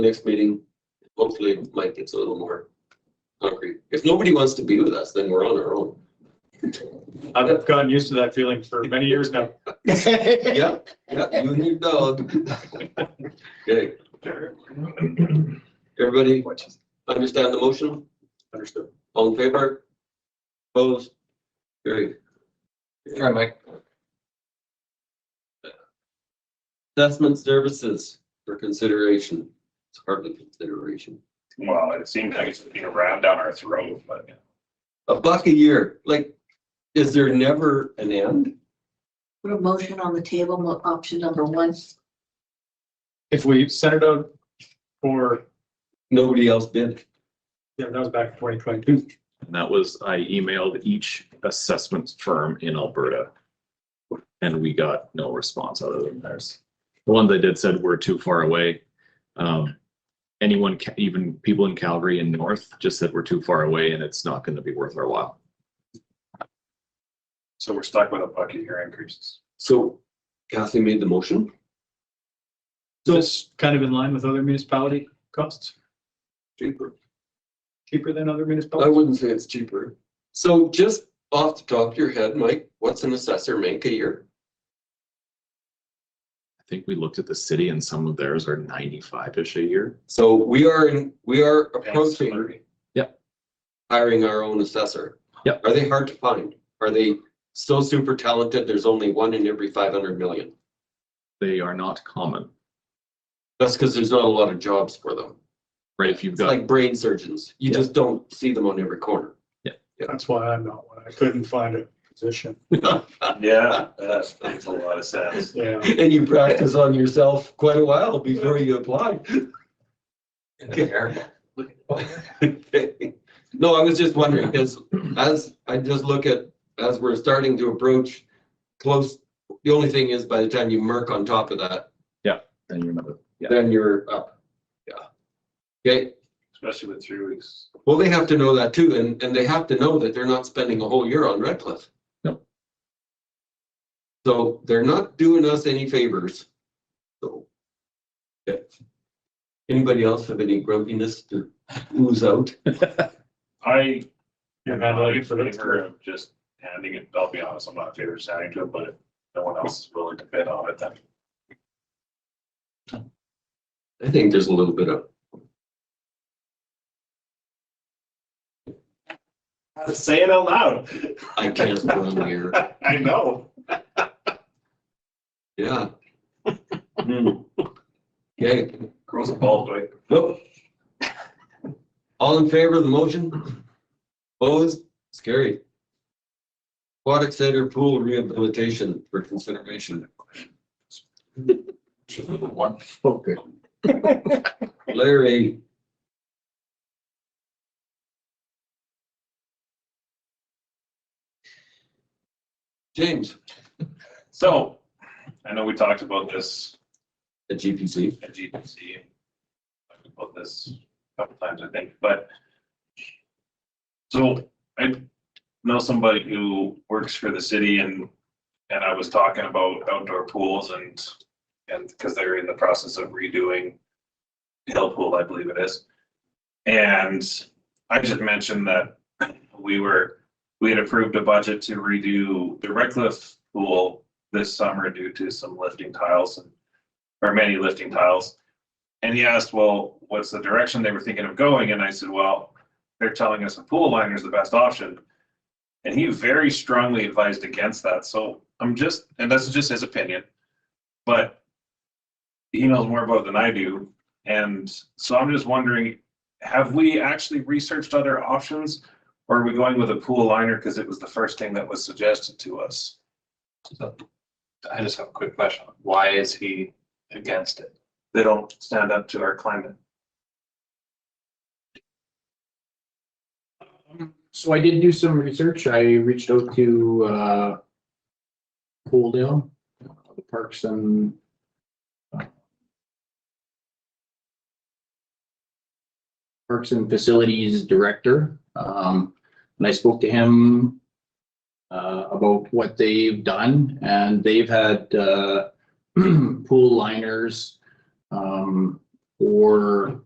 next meeting, hopefully Mike gets a little more concrete. If nobody wants to be with us, then we're on our own. I've gotten used to that feeling for many years now. Yeah, yeah, you and your dog. Okay, everybody understand the motion? Understood. All in favor? Opposed? Carried. Sorry, Mike. Assessment services for consideration. It's hardly consideration. Well, it seems like it's being rammed down our throat, but A buck a year, like, is there never an end? Put a motion on the table, mo- option number one. If we sent it out for, Nobody else bid. yeah, that was back in twenty twenty-two. And that was, I emailed each assessment firm in Alberta. And we got no response other than theirs. The one they did said we're too far away. Um, anyone, ca- even people in Calgary and north just said we're too far away and it's not gonna be worth our while. so we're stuck with a bucket here increases. So Kathy made the motion. Just kind of in line with other municipality costs, Cheaper. cheaper than other I municipalities. wouldn't say it's cheaper. So just off the top of your head, Mike, what's an assessor make a year? I think we looked at the city and some of theirs are ninety-five-ish a year. So we are, in we are approaching Salary. hiring our own assessor. Yep. Are they hard to find? Are they so super talented? There's only one in every five hundred million. They are not common, That's because there's not a lot of jobs for them. right? If you've It's got, like brain surgeons. You Yeah. just don't see them on every corner. That's why I'm not one. I couldn't find a position. Yeah, that makes a lot of sense. Yeah. And you practice on yourself quite a while before you apply. Okay. No, I was just wondering, because as I just look at, as we're starting to approach close, the only thing is by the time you murk on top of that, then you're not, yeah. then you're up. Yeah. Okay, Especially with three weeks. well, they have to know that too, and, and they have to know that they're not spending a whole year on Red Cliff. No. So they're not doing us any favors. So. yeah. Anybody else have any grumpiness to ooze out? I. Yeah, man, like, I'm in for this- favor of Just handing it, I'll be honest, I'm not in favor of signing to it, but if no one else is willing to bid on it, then I think there's a little bit of say it out loud. I can't run here. I know. Yeah. Hmm. Okay, Grows a bald way. nope. All in favor of the motion? Opposed? Scary. Aquatic Center Pool Rehabilitation for consideration. One. Larry, James So, I know we talked about this at GPC. at GPC. Talked about this a couple times, I think, but. So I know somebody who works for the city and, and I was talking about outdoor pools and, and because they're in the process of redoing Hill Pool, I believe it is. And I just mentioned that we were, we had approved a budget to redo the Redcliffe pool this summer due to some lifting tiles and or many lifting tiles. And he asked, well, what's the direction they were thinking of going? And I said, well, they're telling us a pool liner is the best option. And he very strongly advised against that. So I'm just, and that's just his opinion, but he knows more about it than I do. And so I'm just wondering, have we actually researched other options? Or are we going with a pool liner because it was the first thing that was suggested to us? I just have a quick question. Why is he against it? They don't stand up to our climate. So I did do some research. I reached out to, uh, Coaldale, uh, the Parks and uh, Parks and Facilities Director, um, and I spoke to him uh, about what they've done, and they've had, uh, pool liners, um, or